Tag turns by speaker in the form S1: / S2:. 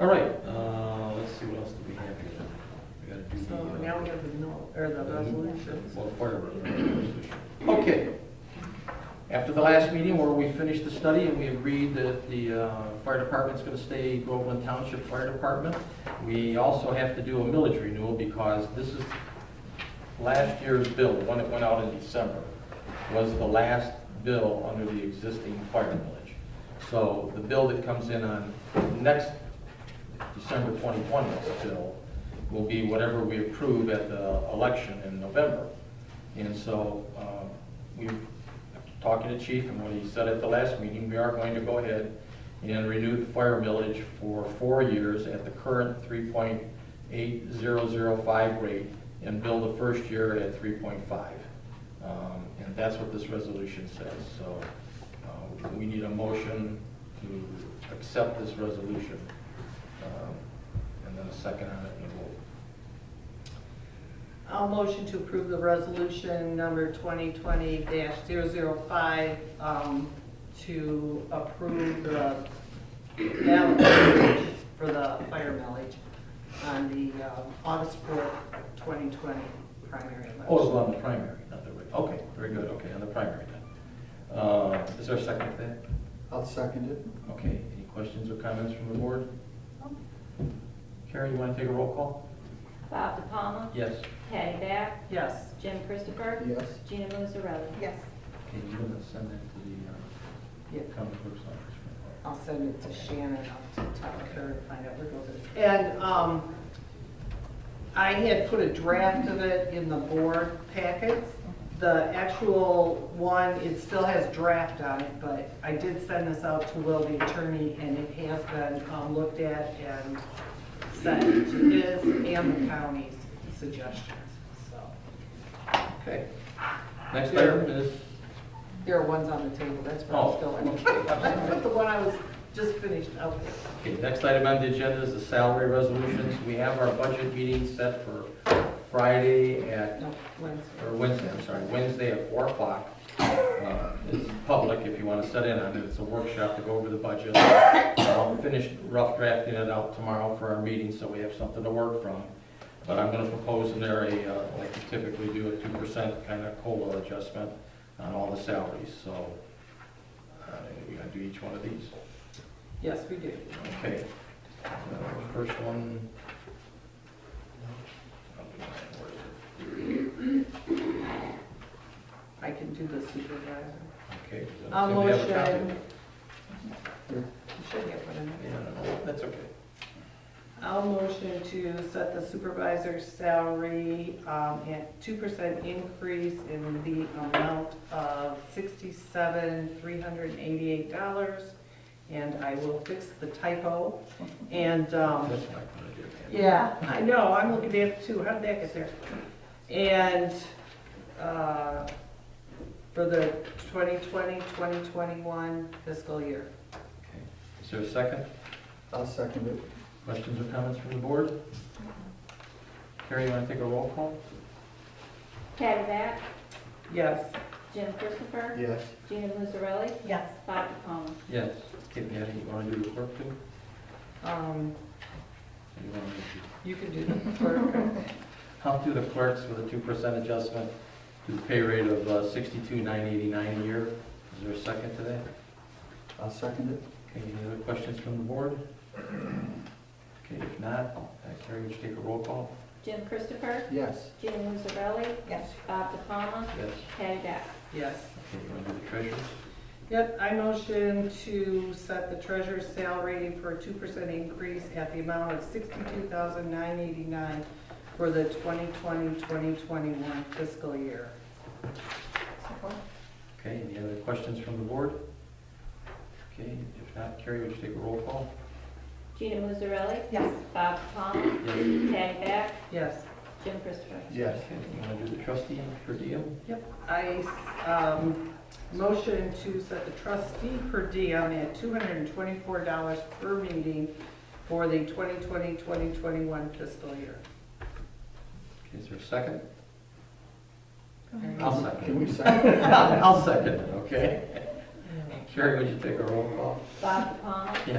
S1: All right, uh, let's see, what else do we have here? We gotta do the,
S2: So
S1: uh,
S2: now we have the no, or the resolutions.
S1: Well, part of it. Okay. After the last meeting where we finished the study and we agreed that the uh, fire department's going to stay Groveland Township Fire Department, we also have to do a millage renewal because this is last year's bill, the one that went out in December, was the last bill under the existing fire millage. So the bill that comes in on next December 2020's bill will be whatever we approve at the election in November. And so um, we, talking to Chief and what he said at the last meeting, we are going to go ahead and renew the fire millage for four years at the current 3.8005 rate and bill the first year at 3.5. Um, And that's what this resolution says. So uh, we need a motion to accept this resolution. Um, And then a second on it, and we'll,
S2: I'll motion to approve the resolution number 2020-005 um, to approve the ballot millage for the fire millage on the um, August 4th, 2020 primary election.
S1: oh, it's on the primary, not the, reg- okay, very good, okay, on the primary then. Uh, Is there a second to that?
S3: I'll second it.
S1: Okay, any questions or comments from the board? Carrie, you want to take a roll call?
S4: Bob DiPalma.
S1: Yes.
S4: Patty Back.
S2: Yes.
S4: Jim Christopher.
S3: Yes.
S4: Gina Musarelli.
S2: Yes.
S1: Okay, you're going to send that to the
S2: Yeah.
S1: uh, county clerk's office.
S2: I'll send it to Shannon, I'll tell her and find out where it goes. And um, I had put a draft of it in the board packets. The actual one, it still has draft on it, but I did send this out to Will, the attorney, and it has been um, looked at and sent to his and the county's suggestions, so.
S1: Okay. Next item is,
S2: There are ones on the table, that's where I'm
S1: Oh,
S2: still
S1: okay, I'm sorry.
S2: at. I put the one I was just finished out there.
S1: okay, next item on the agenda is the salary resolutions. We have our budget meeting set for Friday at
S2: No, Wednesday.
S1: or Wednesday, I'm sorry, Wednesday at four o'clock. Uh, It's public if you want to set in on it, it's a workshop to go over the budget. I'll finish rough drafting it out tomorrow for our meeting, so we have something to work from. But I'm gonna propose in there a, uh, like we typically do, a two percent kind of COLA adjustment on all the salaries, so uh, we gotta do each one of these.
S2: Yes, we do.
S1: Okay. Uh, First one. I'll be mine, where is it?
S2: I can do the supervisor.
S1: Okay. does that-
S2: I'll
S1: does anybody have a copy of
S2: motion.
S1: it?
S2: You should get one in there.
S1: Yeah, no, that's okay.
S2: I'll motion to set the supervisor's salary um, at two percent increase in the amount of sixty-seven, three hundred and eighty-eight dollars. And I will fix the typo and, um,
S1: That's what I'm gonna do, man.
S2: Yeah, I know, I'm looking at it too, how did that get there? And, uh, for the 2020, 2021 fiscal year.
S1: Okay. Is there a second?
S3: I'll second it.
S1: Questions or comments from the board? Carrie, you want to take a roll call?
S4: Patty Back.
S2: Yes,
S4: Jim Christopher.
S3: Yes.
S4: Gina Musarelli.
S2: Yes.
S4: Bob DiPalma.
S1: Yes. Okay, Patty, you want to do the clerk too?
S2: um,
S1: Or you want me to?
S2: you can do the clerk.
S1: I'll do the clerks with a two percent adjustment to the pay rate of uh, sixty-two nine eighty-nine a year. Is there a second to that?
S3: I'll second it.
S1: Okay, any other questions from the board? Okay, if not, uh, Carrie, would you take a roll call?
S4: Jim Christopher.
S3: Yes.
S4: Gina Musarelli.
S2: Yes.
S4: Bob DiPalma.
S1: Yes.
S4: Patty Back.
S2: Yes.
S1: Okay, you want to do the treasurer's?
S2: Yep, I motion to set the treasurer's salary for a 2% increase at the amount of 62989 for the 2020, 2021 fiscal year.
S1: Okay, any other questions from the board? Okay, if not, Carrie, would you take a roll call?
S4: Gina Musarelli.
S2: Yes.
S4: Bob DiPalma.
S1: Yes.
S4: Patty Back.
S2: Yes.
S4: Jim Christopher.
S3: Yes.
S1: Okay, you want to do the trustee per diem?
S2: Yep, I, um, motion to set the trustee per diem at two hundred and twenty-four dollars per meeting for the 2020-2021 fiscal year.
S1: Okay, Is there a second?
S2: All
S1: I'll second.
S3: Can we second? it?
S1: I'll second it, okay? Carrie, would you take a roll call?
S4: Bob DiPalma.